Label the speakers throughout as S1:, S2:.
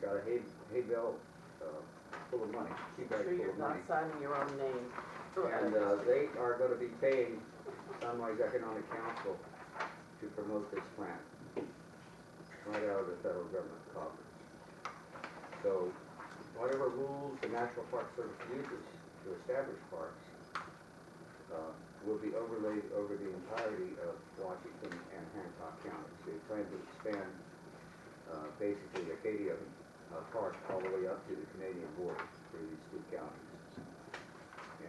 S1: got a hay, hay bale, uh, full of money, tea bag
S2: Sure
S1: full
S2: you're
S1: of
S2: not
S1: money.
S2: signing your own name.
S1: And, uh, they are gonna be paying Sunrise Economic Council to promote this plant, right out of the federal government coffers. So, whatever rules the National Park Service uses to establish parks, uh, will be overlaid over the entirety of Washington and Hancock counties. They plan to expand, uh, basically Acadia uh, Park all the way up to the Canadian border through these two counties.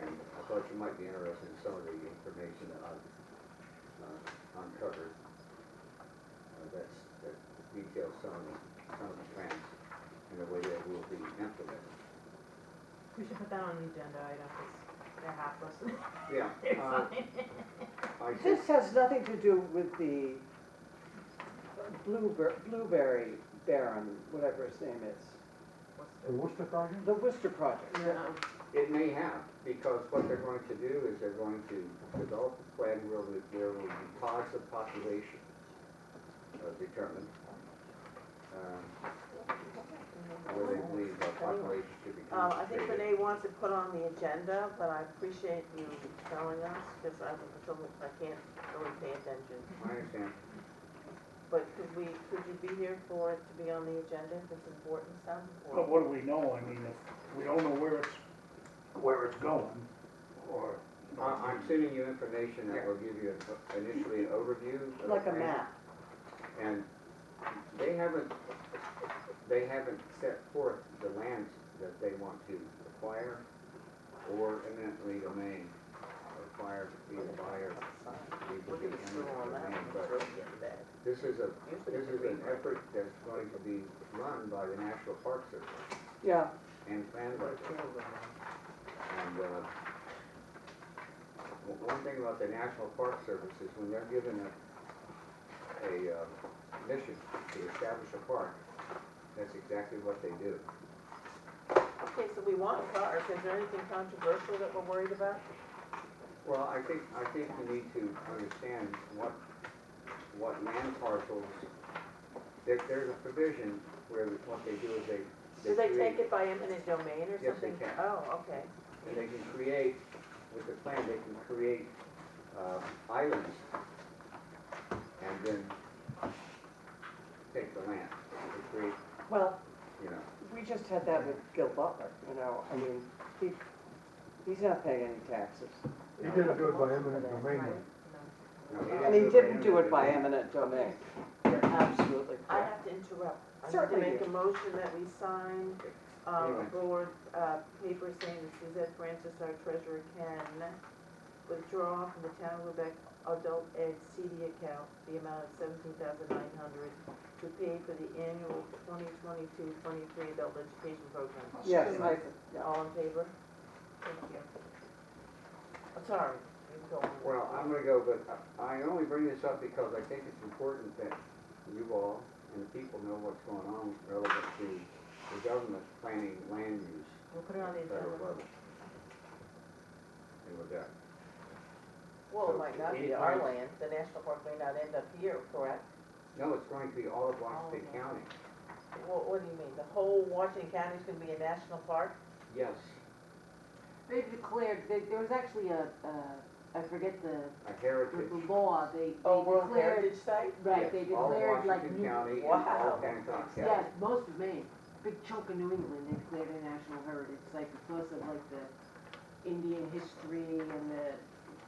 S1: And I thought you might be interested in some of the information that I've uh, uncovered. uh, That's, that details some of the, some of the plans and the way that will be implemented.
S3: We should put that on the agenda item, because they're half listening.
S1: Yeah. uh, I
S4: Uh, This
S1: just,
S4: has nothing to do with the blueberry, blueberry baron, whatever his name is,
S5: The Worcester project?
S4: the Worcester project.
S3: No.
S1: it may have, because what they're going to do is they're going to develop a plan where the- there will be pods of population uh, determined. um, Where they believe the population should be
S2: Uh, I think
S1: concentrated.
S2: Renee wants it put on the agenda, but I appreciate you telling us, because I, I can't really pay attention.
S1: I understand.
S2: But could we, could you be here for it to be on the agenda if it's important, sounds
S6: But
S2: important?
S6: what do we know? I mean, if we don't know where it's, where it's going, or.
S1: I- I'm sending you information that will give you an- initially an overview. of the
S4: Like a
S1: plan,
S4: map.
S1: And they haven't, they haven't set forth the lands that they want to acquire or eminently domain, acquire, be a buyer, be
S2: We're
S1: be
S2: gonna
S1: eminent
S2: screw on that
S1: domain.
S2: one,
S1: But
S2: really get that.
S1: this is a,
S2: Usually
S1: this is
S2: it's a
S1: an
S2: green light.
S1: effort that's going to be run by the National Park Service
S4: Yeah,
S1: and planned by them. And, uh, o- one thing about the National Park Service is when they're given a, a, uh, mission to establish a park, that's exactly what they do.
S2: Okay, so we want a park, is there anything controversial that we're worried about?
S1: Well, I think, I think you need to understand what, what land parcels, there, there's a provision where what they do is they.
S2: Do they
S1: create-
S2: take it by eminent domain or
S1: Yes, they
S2: something?
S1: can.
S2: Oh, okay.
S1: And they can create, with the plan, they can create uh, islands and then take the land. They create,
S4: well,
S1: you know,
S4: we just had that with Gil Butler, you know, I mean, he, he's not paying any taxes.
S5: He didn't do it by eminent domain.
S1: no, they
S4: And he
S1: it by
S4: didn't do it by
S1: eminent
S4: eminent domain. You're absolutely
S2: I
S4: correct.
S2: have to interrupt.
S4: Certainly
S2: I need to make
S4: do.
S2: a motion that we sign, um,
S1: Anyway.
S2: board, uh, paper saying that Suzette Francis, our treasurer, can withdraw from the town of Lubec adult ed CD account the amount of seventeen thousand nine hundred to pay for the annual 2022-23 adult education program.
S4: Yes, I, yeah.
S2: All in favor? Thank you. I'm Sorry, you can go on.
S1: Well, I'm gonna go, but I I only bring this up because I think it's important that you all and the people know what's going on relevant to the government planning land use
S3: We'll put it on the
S1: at the federal
S3: agenda.
S1: level. And with that,
S2: Well, it might not be
S1: Any
S2: our
S1: plans?
S2: land, the national park may not end up here, correct?
S1: no, it's going to be all of Washington
S2: All of it.
S1: County.
S2: What, what do you mean, the whole Washington County is gonna be a national park?
S1: Yes,
S7: They declared, they- there was actually a, uh, I forget the,
S1: a
S7: the
S1: heritage.
S7: the law, they, they declared.
S2: Oh, World Heritage Site?
S7: Right, they
S1: Yes, all of
S7: declared like,
S1: Washington
S7: New-
S1: County and
S2: Wow.
S1: all of Hancock County.
S7: yes, most of Maine, big chunk of New England, they declared a national heritage site because of like the Indian history and the,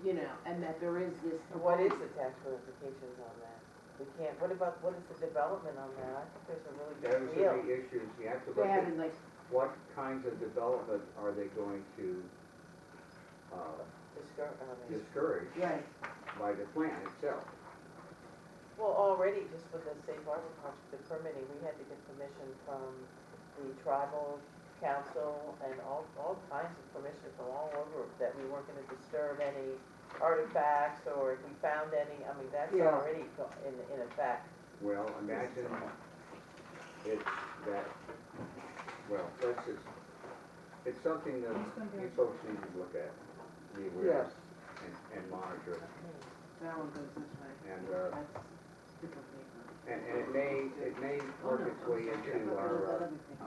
S7: you know, and that there is this.
S2: What is the tax ramifications on that? We can't, what about, what is the development on that? I think there's a really
S1: Those
S2: big
S1: are
S2: deal.
S1: the issues, you have to
S7: They
S1: look at
S7: haven't like,
S1: what kinds of development are they going to uh,
S2: Discour- I mean,
S1: discourage
S7: right,
S1: by the plan itself.
S2: Well, already, just with the safe harbor project, the permitting, we had to get permission from the tribal council and all, all kinds of permission from all over that we weren't gonna disturb any artifacts or if we found any, I mean, that's
S4: Yeah.
S2: already go- in, in effect.
S1: Well, imagine it's that, well, that's just, it's something that you folks need to look at, be aware of,
S4: Yes.
S1: and, and monitor. it.
S7: that one goes this way.
S1: And, uh,
S7: That's different paper. Oh,
S1: And, and it may, it may work its way into our, uh,
S7: Other thing.